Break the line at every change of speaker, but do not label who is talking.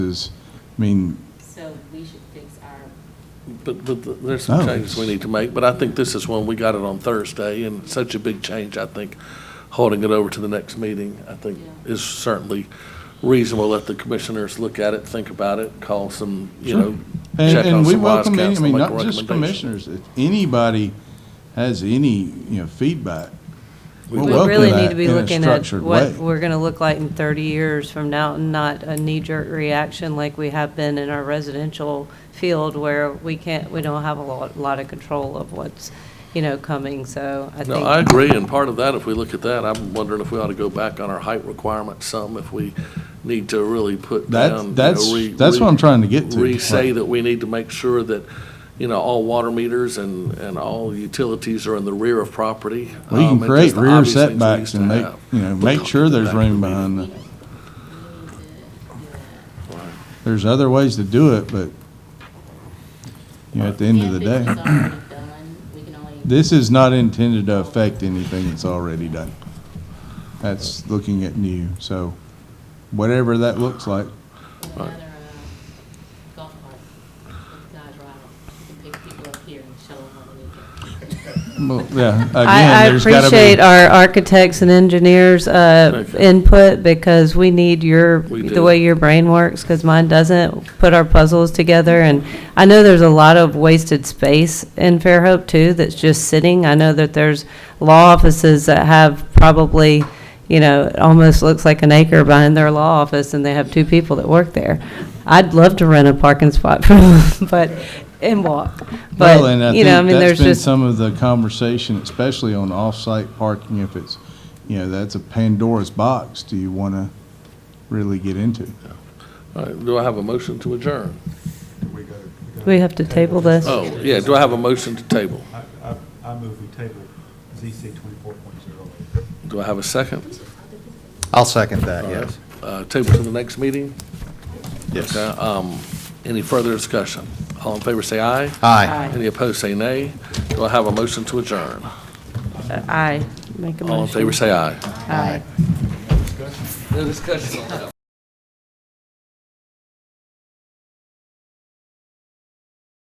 is, I mean,
So we should fix our,
But, but there's some
Oh.
changes we need to make, but I think this is one, we got it on Thursday, and it's such a big change, I think holding it over to the next meeting, I think
Yeah.
is certainly reasonable, let the commissioners look at it, think about it, call some, you know,
and,
check on
and we
some wise
welcome, any- I
counsel,
mean,
make a
not just
recommendation.
commissioners, if anybody has any, you know, feedback, we'll
We
welcome
really need
that
to be
in a
looking at
structured
what
way.
we're going to look like in 30 years from now, and not a knee-jerk reaction like we have been in our residential field where we can't, we don't have a lot, lot of control of what's, you know, coming, so I
No, I
think,
agree, and part of that, if we look at that, I'm wondering if we ought to go back on our height requirement some, if we need to really put down. you
That's,
know,
that's,
re-
that's what I'm
re-
trying to get to.
re-say that we need to make sure that, you know, all water meters and, and all utilities are in the rear of property.
We can
Um, and
create
just the
rear
obvious things we used
setbacks
to
and make,
have.
you know, make sure there's room behind the,
we need to,
there's other ways to do it, but, you know, at the end of the
If
day,
it's already done, we can only.
this is not intended to affect anything that's already done. That's looking at new, so whatever that looks like,
Another uh, golf cart, with guys riding, you can pick people up here and show them how to do it.
well, yeah, again,
I I
there's gotta be.
appreciate our architects and engineers' uh,
Thank you.
input, because we need your,
We
the
do.
way your brain works, because mine doesn't, put our puzzles together, and I know there's a lot of wasted space in Fairhope, too, that's just sitting. I know that there's law offices that have probably, you know, it almost looks like an acre behind their law office, and they have two people that work there. I'd love to rent a parking spot for them, but, and walk,
Well, and
but,
I
you know, I
think
mean,
that's
there's
been
just.
some of the conversation, especially on off-site parking, if it's, you know, that's a Pandora's box, do you want to really get into?
All right, do I have a motion to adjourn?
We have to table this.
Oh, yeah, do I have a motion to table?
I, I, I move we table ZC twenty-four point zero eight.
Do I have a second?
I'll second that, yes.
Uh, table to the next meeting?
Yes.
Okay, Um, any further discussion? All in favor, say aye.
Aye.
Any opposed, say nay. Do I have a motion to adjourn?
Aye. Make a motion.
All in favor, say aye.
Aye.
No discussion on that